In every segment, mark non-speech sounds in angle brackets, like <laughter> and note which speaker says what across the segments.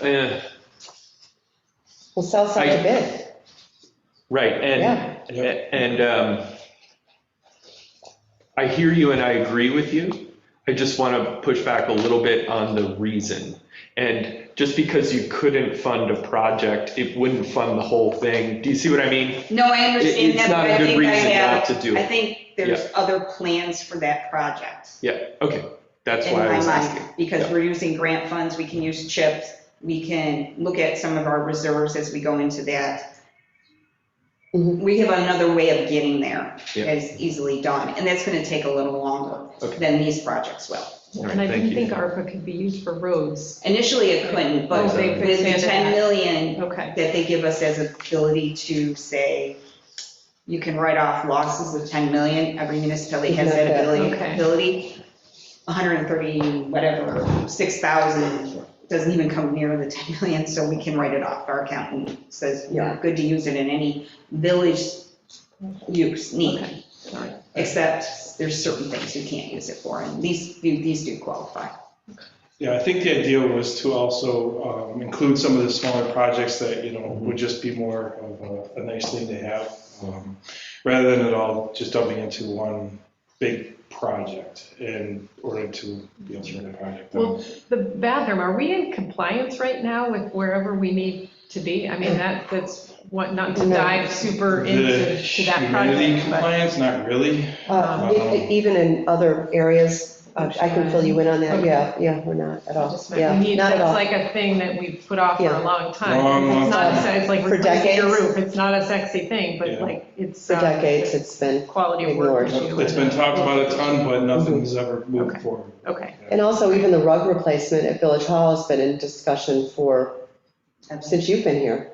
Speaker 1: eh,
Speaker 2: Well, sell some to bid,
Speaker 1: right,
Speaker 2: Yeah.
Speaker 1: and, and um, I hear you and I agree with you. I just want to push back a little bit on the reason. And just because you couldn't fund a project, it wouldn't fund the whole thing. Do you see what I mean?
Speaker 3: No, I
Speaker 1: It-
Speaker 3: understand
Speaker 1: It's
Speaker 3: that,
Speaker 1: not
Speaker 3: but
Speaker 1: a
Speaker 3: I
Speaker 1: good
Speaker 3: think I
Speaker 1: reason not
Speaker 3: have,
Speaker 1: to do
Speaker 3: I
Speaker 1: it.
Speaker 3: think there's other plans for that project.
Speaker 1: Yeah, okay, that's
Speaker 3: in
Speaker 1: why I
Speaker 3: my
Speaker 1: was
Speaker 3: mind,
Speaker 1: asking.
Speaker 3: because
Speaker 1: Yeah.
Speaker 3: we're using grant funds, we can use chips, we can look at some of our reserves as we go into that.
Speaker 2: Mhm.
Speaker 3: We have another way of getting there,
Speaker 1: Yeah.
Speaker 3: as easily done, and that's gonna take a little longer
Speaker 1: Okay.
Speaker 3: than these projects will.
Speaker 1: All right,
Speaker 4: And I
Speaker 1: thank
Speaker 4: didn't
Speaker 1: you.
Speaker 4: think ARPA could be used for roads.
Speaker 3: Initially, it couldn't, but
Speaker 4: Oh, they
Speaker 3: with the
Speaker 4: expanded
Speaker 3: 10
Speaker 4: that.
Speaker 3: million
Speaker 4: Okay,
Speaker 3: that they give us as ability to say, you can write off losses of 10 million, every municipality has that ability,
Speaker 4: Okay.
Speaker 3: ability. 130, whatever, 6,000 doesn't even come near the 10 million, so we can write it off. Our accountant says,
Speaker 2: Yeah.
Speaker 3: you're good to use it in any village use need,
Speaker 4: okay, all right.
Speaker 3: except there's certain things you can't use it for, and these, these do qualify.
Speaker 5: Yeah, I think the idea was to also um, include some of the smaller projects that, you know, would just be more of a- a nice thing to have, um, rather than it all just dumping into one big project in order to be able to run the project.
Speaker 4: Well, the bathroom, are we in compliance right now with wherever we need to be? I mean, that, that's what, not to
Speaker 2: No.
Speaker 4: dive super
Speaker 5: The
Speaker 4: into to that
Speaker 5: humidity
Speaker 4: project, but.
Speaker 5: compliance, not really.
Speaker 2: Uh, e- even in other areas, uh, I can fill you in on that,
Speaker 4: Okay.
Speaker 2: yeah, yeah, we're not at all,
Speaker 4: Just meant
Speaker 2: yeah,
Speaker 4: we need-
Speaker 2: not at
Speaker 4: That's
Speaker 2: all.
Speaker 4: like a thing that we've put off for
Speaker 2: Yeah.
Speaker 4: a long time.
Speaker 5: Long, long
Speaker 4: It's not,
Speaker 2: time.
Speaker 4: a- it's like
Speaker 2: For
Speaker 4: replacing your
Speaker 2: decades.
Speaker 4: roof, it's not a sexy thing, but
Speaker 5: Yeah.
Speaker 4: like, it's.
Speaker 2: For
Speaker 4: uh,
Speaker 2: decades, it's been,
Speaker 4: Quality of work
Speaker 2: ignored.
Speaker 4: issue.
Speaker 5: It's been talked about a ton, but nothing's ever moved
Speaker 4: Mm-hmm. Okay.
Speaker 5: forward.
Speaker 4: Okay,
Speaker 2: and also even the rug replacement at Village Hall has been in discussion for, since you've been here.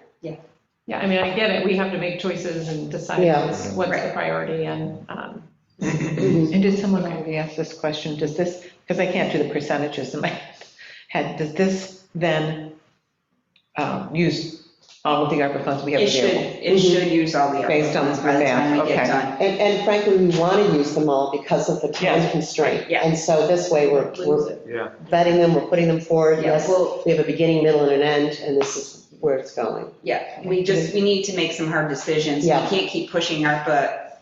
Speaker 4: yeah, I mean, I get it, we have to make choices and decide
Speaker 2: Yeah.
Speaker 4: what's what's the
Speaker 3: Right.
Speaker 4: priority and, um,
Speaker 2: Mhm.
Speaker 6: And did someone already ask this question? Does this, because I can't do the percentages in my head, does this then um, use all of the ARPA funds we have
Speaker 3: It should,
Speaker 6: available?
Speaker 3: it should use all the.
Speaker 6: Based on
Speaker 3: funds By the time we get
Speaker 6: that, okay.
Speaker 3: done.
Speaker 2: And, and frankly, we want to use them all because of the time
Speaker 6: Yes.
Speaker 2: constraint.
Speaker 3: Yeah.
Speaker 2: And so this way, we're, we're
Speaker 1: Yeah,
Speaker 2: vetting them, we're putting them forward,
Speaker 3: Yeah,
Speaker 2: yes,
Speaker 3: well,
Speaker 2: we have a beginning, middle, and an end, and this is where it's going.
Speaker 3: yeah, we just, we need to make some hard decisions. We
Speaker 2: Yeah.
Speaker 3: can't keep pushing ARPA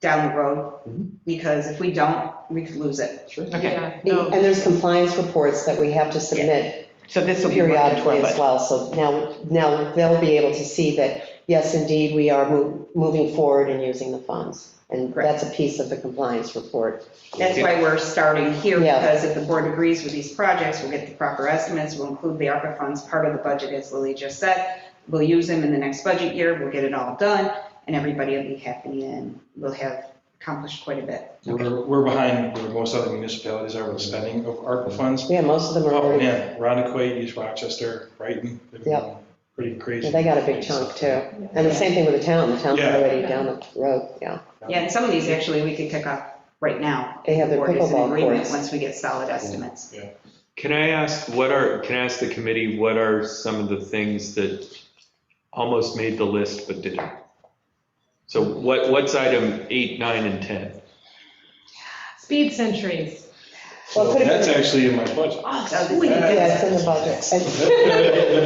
Speaker 3: down the
Speaker 2: Mm-hmm.
Speaker 3: road, because if we don't, we could lose it.
Speaker 1: sure.
Speaker 6: Okay,
Speaker 4: yeah, no.
Speaker 2: And there's compliance reports that we have to submit
Speaker 6: so this will be working
Speaker 2: periodically
Speaker 6: toward,
Speaker 2: as
Speaker 6: but,
Speaker 2: well, so now, now they'll be able to see that, yes, indeed, we are mo- moving forward and using the funds. And
Speaker 3: Correct.
Speaker 2: that's a piece of the compliance report.
Speaker 3: That's why we're starting here,
Speaker 2: Yeah.
Speaker 3: because if the board agrees with these projects, we'll get the proper estimates, we'll include the ARPA funds, part of the budget, as Lily just said. We'll use them in the next budget year, we'll get it all done, and everybody will be happy, and we'll have accomplished quite a bit.
Speaker 5: We're, we're behind where most other municipalities are with spending of ARPA funds.
Speaker 2: Yeah, most of them are
Speaker 5: Oh,
Speaker 2: already,
Speaker 5: man, Rondequoit, East Rochester, Brighton, they've been
Speaker 2: Yep.
Speaker 5: going pretty crazy.
Speaker 2: they got a big chunk too. And the same thing with the town, the town's
Speaker 5: Yeah.
Speaker 2: already down the road, yeah.
Speaker 3: Yeah, and some of these actually we could pick up right now.
Speaker 2: They have their
Speaker 3: Board is in
Speaker 2: pickleball
Speaker 3: agreement
Speaker 2: courts.
Speaker 3: Once we get solid estimates.
Speaker 1: Can I ask, what are, can I ask the committee, what are some of the things that almost made the list but didn't? So what, what's item eight, nine, and
Speaker 2: <laughs>
Speaker 1: 10?
Speaker 4: Speed sentries.
Speaker 2: Well,
Speaker 5: So
Speaker 2: it could have
Speaker 5: that's
Speaker 2: been-
Speaker 5: actually in my
Speaker 2: <laughs>
Speaker 5: budget.
Speaker 4: Oh,
Speaker 3: That was-
Speaker 4: sweet.
Speaker 2: Yeah, it's in the budget.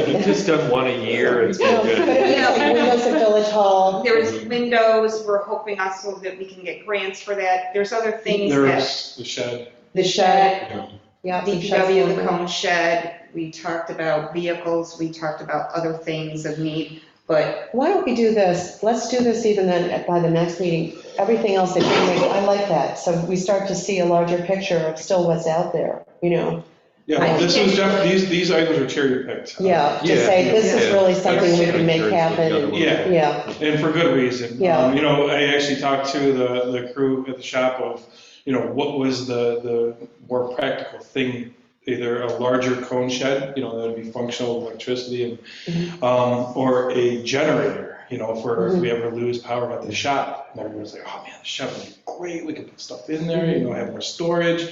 Speaker 2: And-
Speaker 1: We've Just done one a year, it's
Speaker 2: No,
Speaker 1: been
Speaker 2: But
Speaker 1: good.
Speaker 2: it was like windows at Village Hall,
Speaker 3: There was windows, we're hoping also that we can get grants for that. There's other things that
Speaker 5: There's the shed.
Speaker 2: the shed,
Speaker 5: yeah.
Speaker 2: yeah. some sheds
Speaker 3: DPW, the
Speaker 2: going on.
Speaker 3: cone shed, we talked about vehicles, we talked about other things of need, but
Speaker 2: Why don't we do this? Let's do this even then at- by the next meeting. Everything else that you make, I like that. So we start to see a larger picture of still what's out there, you know?
Speaker 5: Yeah,
Speaker 3: I
Speaker 5: well, this
Speaker 3: think
Speaker 5: was
Speaker 3: they-
Speaker 5: def- these, these items were cherry picked.
Speaker 2: Yeah, to
Speaker 1: Yeah.
Speaker 2: say, this is
Speaker 1: Yeah.
Speaker 2: really something we can make happen.
Speaker 5: Yeah.
Speaker 2: Yeah,
Speaker 5: And for good reason.
Speaker 2: Yeah.
Speaker 5: Um, You know, I actually talked to the, the crew at the shop of, you know, what was the, the more practical thing? Either a larger cone shed, you know, that'd be functional with electricity and, um, or a generator, you know, for if we ever lose power at the shop. And everyone's like, oh man, the shop would be great, we could put stuff in there, you know, have more storage.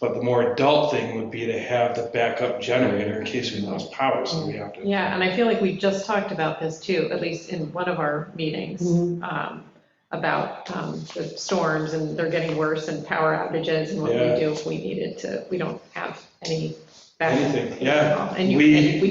Speaker 5: But the more adult thing would be to have the backup generator in case we lost power, so we have to.
Speaker 4: Yeah, and I feel like we just talked about this too, at least in one of our meetings,
Speaker 2: Mhm.
Speaker 4: um, about um, the storms and they're getting worse and power outages and what we
Speaker 5: Yeah.
Speaker 4: do if we needed to, we don't have any backup.
Speaker 5: Anything, yeah.
Speaker 4: And you,
Speaker 5: We-
Speaker 4: and we